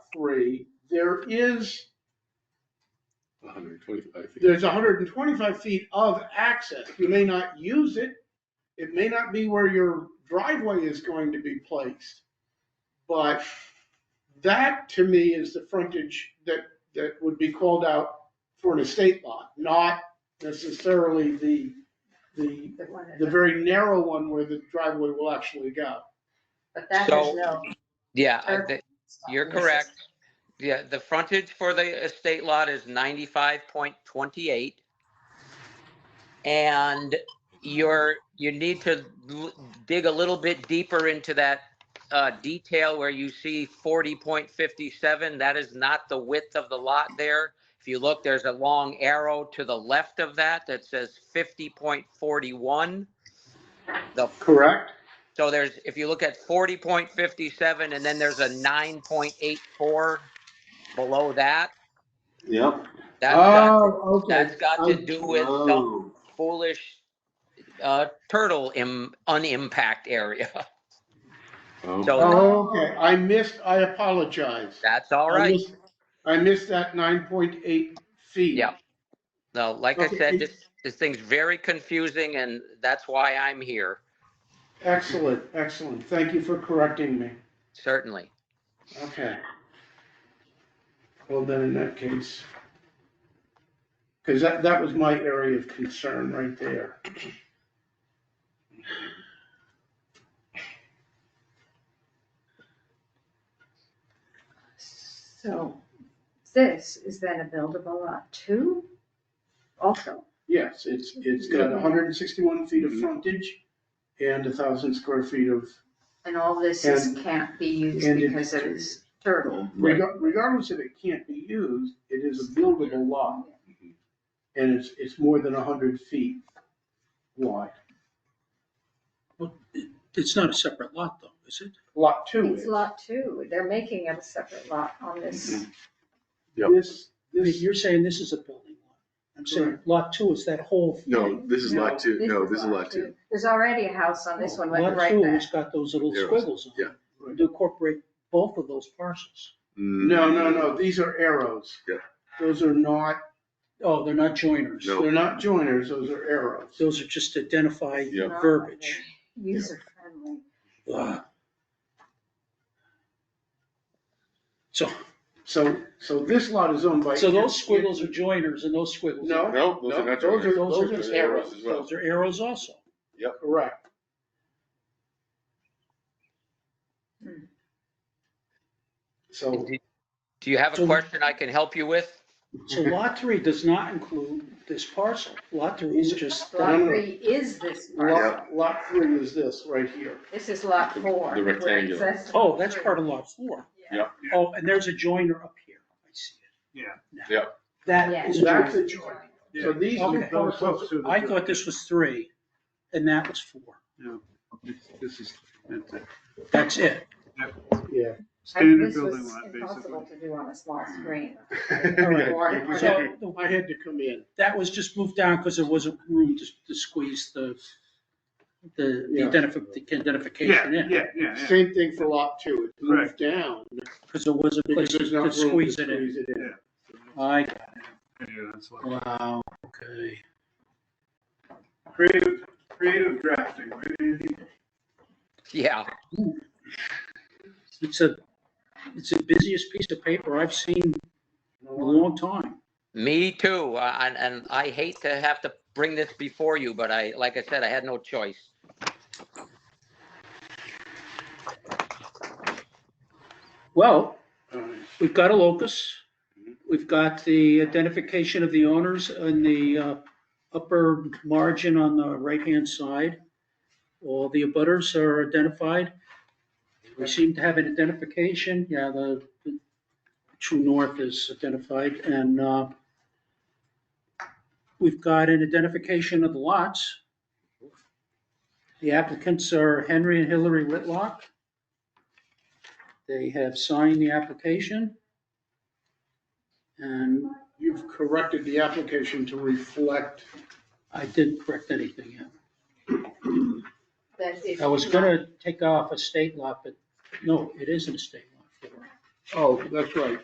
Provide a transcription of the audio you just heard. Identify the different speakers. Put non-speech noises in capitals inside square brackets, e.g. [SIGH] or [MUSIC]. Speaker 1: three, there is,
Speaker 2: hundred and twenty-five feet.
Speaker 1: there's hundred and twenty-five feet of access. You may not use it. It may not be where your driveway is going to be placed. But that to me is the frontage that, that would be called out for an estate lot, not necessarily the, the,
Speaker 3: The one
Speaker 1: the
Speaker 3: that-
Speaker 1: very narrow one where the driveway will actually go.
Speaker 3: But that has
Speaker 4: So-
Speaker 3: no.
Speaker 4: Yeah, I
Speaker 3: Or-
Speaker 4: thi- you're correct. Yeah, the frontage for the estate lot is ninety-five point twenty-eight. And you're, you need to l- dig a little bit deeper into that uh, detail where you see forty point fifty-seven. That is not the width of the lot there. If you look, there's a long arrow to the left of that that says fifty point forty-one. The
Speaker 1: Correct?
Speaker 4: so there's, if you look at forty point fifty-seven, and then there's a nine point eight four below that.
Speaker 2: Yep.
Speaker 4: That's got,
Speaker 1: Oh, okay.
Speaker 4: that's got to do with some
Speaker 2: Oh,
Speaker 4: foolish, uh, turtle im, unimpact area. [LAUGHS]
Speaker 2: oh.
Speaker 4: So-
Speaker 1: Oh, okay, I missed, I apologize.
Speaker 4: That's all
Speaker 1: I
Speaker 4: right.
Speaker 1: missed- I missed that nine point eight feet.
Speaker 4: Yeah. No, like I
Speaker 1: Okay,
Speaker 4: said,
Speaker 1: it-
Speaker 4: this, this thing's very confusing and that's why I'm here,
Speaker 1: Excellent, excellent. Thank you for correcting me.
Speaker 4: certainly.
Speaker 1: Okay. Well, then in that case, because that, that was my area of concern right there.
Speaker 3: So this is then a buildable lot too, also.
Speaker 1: Yes, it's, it's got hundred and sixty-one feet of frontage and a thousand square feet of,
Speaker 3: And all this is,
Speaker 1: And-
Speaker 3: can't be used
Speaker 1: and it-
Speaker 3: because it is turtle.
Speaker 2: Right.
Speaker 1: Regar- regardless if it can't be used, it is a buildable lot.
Speaker 2: Mhm.
Speaker 1: and it's, it's more than a hundred feet wide.
Speaker 5: It's not a separate lot though, is it?
Speaker 1: Lot two
Speaker 3: It's
Speaker 1: is.
Speaker 3: lot two. They're making it a separate lot on this.
Speaker 2: Yep.
Speaker 1: This,
Speaker 5: I mean,
Speaker 1: this,
Speaker 5: You're saying this is a building lot. I'm saying lot two is that whole. thing.
Speaker 2: No, Oh, this is lot two, no, this is lot two.
Speaker 3: There's already a house on this one, went
Speaker 5: Oh, Lot
Speaker 3: right
Speaker 5: two,
Speaker 3: back.
Speaker 5: it's got those little
Speaker 2: Arrows,
Speaker 5: squiggles on it. To incorporate both of those parcels.
Speaker 2: Mm.
Speaker 1: no, no, no, these are arrows.
Speaker 2: Yeah.
Speaker 1: Those are not,
Speaker 5: Oh, they're not joiners.
Speaker 2: No.
Speaker 1: they're not joiners, those are arrows.
Speaker 5: Those are just identify
Speaker 2: Yeah.
Speaker 3: Not
Speaker 5: verbiage.
Speaker 3: very User friendly.
Speaker 5: Ugh. So,
Speaker 1: So, so this lot is owned by.
Speaker 5: so those squiggles are joiners and those squiggles.
Speaker 1: No,
Speaker 2: No, those are
Speaker 1: no,
Speaker 2: not
Speaker 1: those are,
Speaker 2: joiners.
Speaker 1: those are
Speaker 2: Those
Speaker 1: just
Speaker 2: are arrows
Speaker 1: arrows,
Speaker 2: as well.
Speaker 5: Those are arrows also.
Speaker 1: correct.
Speaker 3: Hmm.
Speaker 1: So,
Speaker 4: Do do you have a
Speaker 5: So-
Speaker 4: question I can help you with?
Speaker 5: So lot three does not include this parcel. Lot three is just, that.
Speaker 3: Lot three is this parcel.
Speaker 1: lot, lot three is this right here.
Speaker 3: This is lot four.
Speaker 2: The
Speaker 3: where it
Speaker 2: rectangular.
Speaker 3: says
Speaker 5: oh, that's
Speaker 3: three.
Speaker 5: part of lot four.
Speaker 2: Yeah.
Speaker 5: Oh, and there's a joiner up here. I see it. Now,
Speaker 2: Yeah.
Speaker 5: That
Speaker 3: Yeah.
Speaker 5: is a
Speaker 1: That's
Speaker 5: joiner.
Speaker 1: a joint. So these
Speaker 5: Okay.
Speaker 1: two parcels.
Speaker 5: I thought this was three and that was four.
Speaker 6: This is that's it.
Speaker 5: That's it.
Speaker 1: [LAUGHS] Yeah.
Speaker 3: I-
Speaker 6: standard
Speaker 3: this was
Speaker 6: building lot,
Speaker 3: Impossible
Speaker 6: basically.
Speaker 3: to do on a small screen.
Speaker 1: Alright, [LAUGHS] I had-
Speaker 5: So the-
Speaker 1: I had to come in.
Speaker 5: that was just moved down because there wasn't room to, to squeeze the, the the
Speaker 1: Yeah.
Speaker 5: identif- the
Speaker 6: Yeah,
Speaker 5: identification in.
Speaker 6: yeah, yeah, yeah.
Speaker 1: Same thing for lot two, it moved down
Speaker 5: Because there wasn't a place
Speaker 1: because there's not
Speaker 5: to
Speaker 1: room to
Speaker 5: squeeze it in.
Speaker 1: in.
Speaker 5: I,
Speaker 6: Yeah, that's what-
Speaker 5: wow, okay.
Speaker 6: Creative, creative drafting, right, Andy?
Speaker 4: Yeah,
Speaker 5: It's a, it's the busiest piece of paper I've seen in a long time.
Speaker 4: me too. Uh, And, and I hate to have to bring this before you, but I, like I said, I had no choice.
Speaker 5: Well,
Speaker 1: Alright.
Speaker 5: we've got a locus. We've got the identification of the owners in the uh, upper margin on the right-hand side. All the abutters are identified. We seem to have an identification. Yeah, the the true north is identified and uh, we've got an identification of the lots. The applicants are Henry and Hillary Whitlock. They have signed the application. And
Speaker 1: You've corrected the application to reflect,
Speaker 5: I didn't correct anything yet.
Speaker 3: That is
Speaker 5: I was
Speaker 3: not-
Speaker 5: gonna take off a state lot, but no, it is an estate lot.
Speaker 1: Oh, that's right.